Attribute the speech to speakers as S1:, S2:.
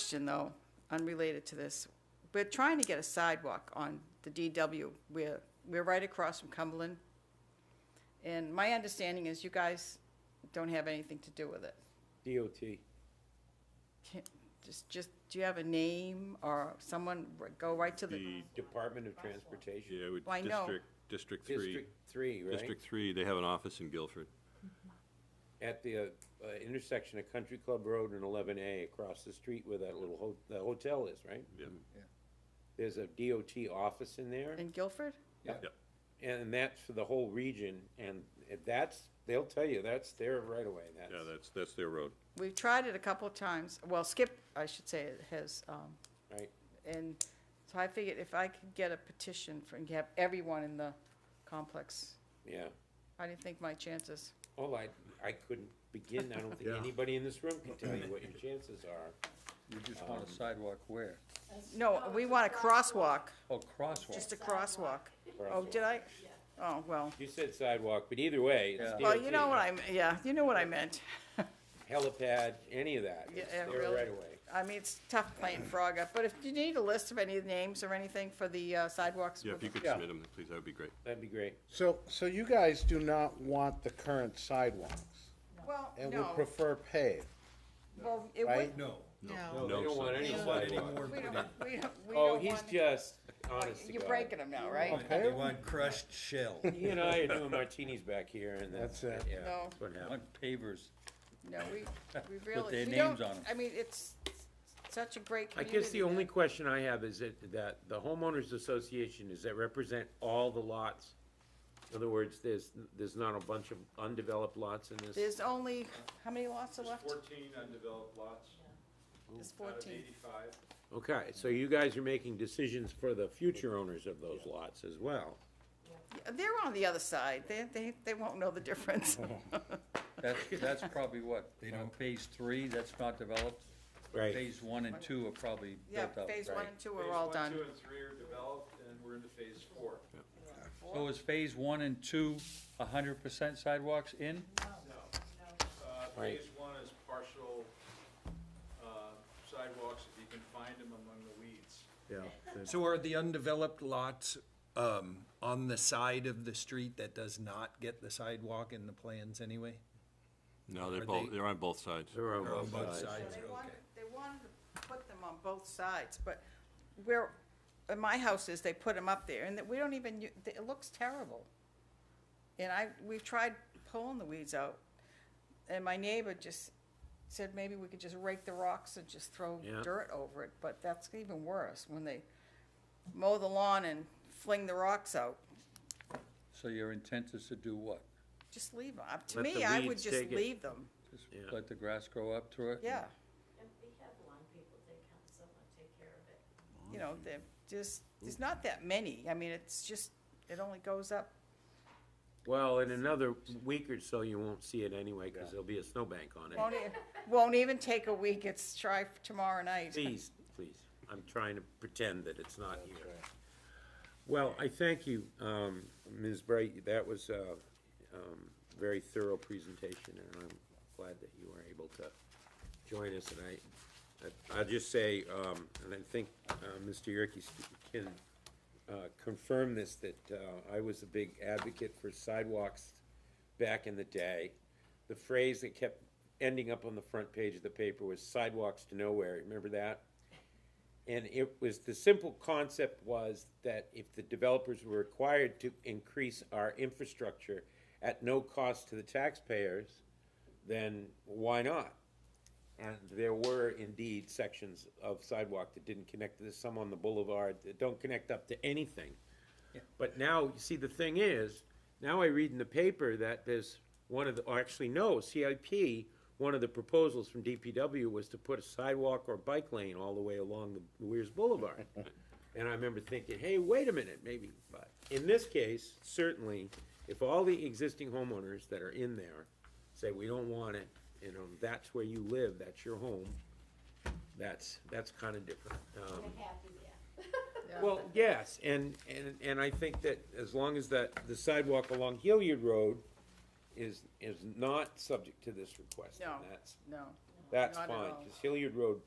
S1: question, though, unrelated to this. We're trying to get a sidewalk on the DW. We're, we're right across from Cumberland. And my understanding is you guys don't have anything to do with it.
S2: DOT.
S1: Can- Just, just, do you have a name or someone, r- go right to the,
S3: The,
S2: Department of Transportation.
S3: yeah, with
S1: Uh-huh. Well, I know.
S3: District, District Three.
S2: District Three, right?
S3: District Three, they have an office in Guilford.
S2: At the uh, uh, intersection of Country Club Road and eleven A, across the street where that little ho- the hotel is, right?
S3: Yeah,
S2: There's a DOT office in there,
S1: in Guilford?
S3: yeah.
S2: and that's for the whole region, and that's, they'll tell you, that's their right away, that's.
S3: Yeah, that's, that's their road.
S1: We've tried it a couple of times. Well, Skip, I should say, has, um,
S2: Right,
S1: And so I figured if I could get a petition for, and have everyone in the complex,
S2: yeah.
S1: I didn't think my chances.
S2: Well, I, I couldn't begin, I don't think
S4: Yeah.
S2: anybody in this room can tell you what your chances are.
S4: You just want a sidewalk where?
S1: No, we want a crosswalk,
S4: Oh, crosswalk.
S1: just a crosswalk. Oh, did I? Oh, well.
S2: You said sidewalk, but either way, it's
S4: Yeah.
S2: DOT.
S1: Well, you know what I, m- yeah, you know what I meant.
S2: Helipad, any of that,
S1: Yeah,
S2: it's
S1: yeah,
S2: their
S1: really.
S2: right away.
S1: I mean, it's tough playing frog up, but if you need a list of any names or anything for the uh, sidewalks.
S3: Yeah,
S1: with
S3: if you
S1: the-
S3: could submit them, please, that would be great.
S2: That'd be great.
S5: So, so you guys do not want the current sidewalks
S1: Well,
S5: and would
S1: no,
S5: prefer paved,
S1: well, it
S5: right?
S1: would,
S4: No.
S6: No,
S3: No,
S2: They don't want any
S3: sidewalk.
S2: sidewalk.
S1: we don't, we don't, we
S2: Oh,
S1: don't
S2: he's
S1: want.
S2: just, honest to
S1: You're
S2: God. Oh,
S1: breaking them now, right?
S5: Okay.
S4: They want crushed shell.
S2: He and I are doing martinis back here and that's.
S5: That's it.
S2: yeah,
S1: No.
S2: that's what happened.
S4: Want pavers.
S1: No, we, we really,
S4: their
S1: we
S4: names
S1: don't,
S4: on 'em.
S1: I mean, it's such a great
S2: I
S1: community.
S2: guess the only
S1: that-
S2: question I have is that, that the homeowners association, does that represent all the lots? In other words, there's, there's not a bunch of undeveloped lots in this?
S1: There's only, how many lots are left?
S7: fourteen undeveloped lots
S1: There's
S7: out of
S1: fourteen.
S7: eighty-five.
S2: Okay, so you guys are making decisions for the future owners of those lots as well.
S1: Yeah, They're on the other side, they, they, they won't know the difference.
S4: That's, that's probably what, on phase three, that's not developed?
S2: Right.
S4: Phase one and two are probably
S1: Yeah,
S4: built up.
S1: phase one and two
S7: Phase
S1: are all
S7: one,
S1: done.
S7: Two and three are developed, and we're into phase four.
S4: So is phase one and two a hundred percent sidewalks in?
S7: No. Uh,
S2: Right.
S7: phase one is partial, uh, sidewalks, if you can find them among the weeds.
S6: so are the undeveloped lots, um, on the side of the street that does not get the sidewalk in the plans anyway?
S3: No, they're
S6: Are
S3: both,
S6: they-
S3: they're on both sides.
S2: They're on
S6: Or on
S2: both
S6: both
S2: sides.
S6: sides,
S1: They wanted,
S6: okay.
S1: they wanted to put them on both sides, but where, in my house is, they put them up there, and that we don't even, u- it looks terrible. And I, we've tried pulling the weeds out, and my neighbor just said maybe we could just rake the rocks and just throw
S2: Yeah.
S1: dirt over it, but that's even worse, when they mow the lawn and fling the rocks out,
S4: So your intent is to do what?
S1: just leave them. To
S2: Let
S1: me,
S2: the
S1: I would
S2: weeds
S1: just
S2: take it.
S1: leave them,
S4: Just
S2: Yeah.
S4: let the grass grow up through it?
S1: yeah.
S8: And we have lawn people that come, someone take care of it.
S1: you know, they just, there's not that many. I mean, it's just, it only goes up.
S2: Well, in another week or so, you won't see it anyway, because there'll be a snowbank on
S1: Won't,
S2: it.
S1: e- won't even take a week. It's try for tomorrow night.
S2: Please, please, I'm trying to pretend that it's not here. Well, I thank you, um, Ms. Bright, that was a, um, very thorough presentation, and I'm glad that you were able to join us, and I, I- I'll just say, um, and I think, uh, Mr. Yerkes can, uh, confirm this, that, uh, I was a big advocate for sidewalks back in the day. The phrase that kept ending up on the front page of the paper was sidewalks to nowhere, remember that? And it was, the simple concept was that if the developers were required to increase our infrastructure at no cost to the taxpayers, then why not? And there were indeed sections of sidewalk that didn't connect, there's some on the boulevard that don't connect up to anything. But now, you see, the thing is, now I read in the paper that there's one of the, or actually, no, CIP, one of the proposals from DPW was to put a sidewalk or bike lane all the way along the Weir's Boulevard. And I remember thinking, hey, wait a minute, maybe, but in this case, certainly, if all the existing homeowners that are in there say, we don't want it, you know, that's where you live, that's your home, that's, that's kinda different. Um,
S8: We're happy there.
S2: well, yes, and, and, and I think that as long as that, the sidewalk along Hilliard Road is, is not subject to this request, and
S1: No.
S2: that's,
S1: No.
S2: that's
S1: Not at
S2: fine,
S1: all.
S2: because Hilliard Road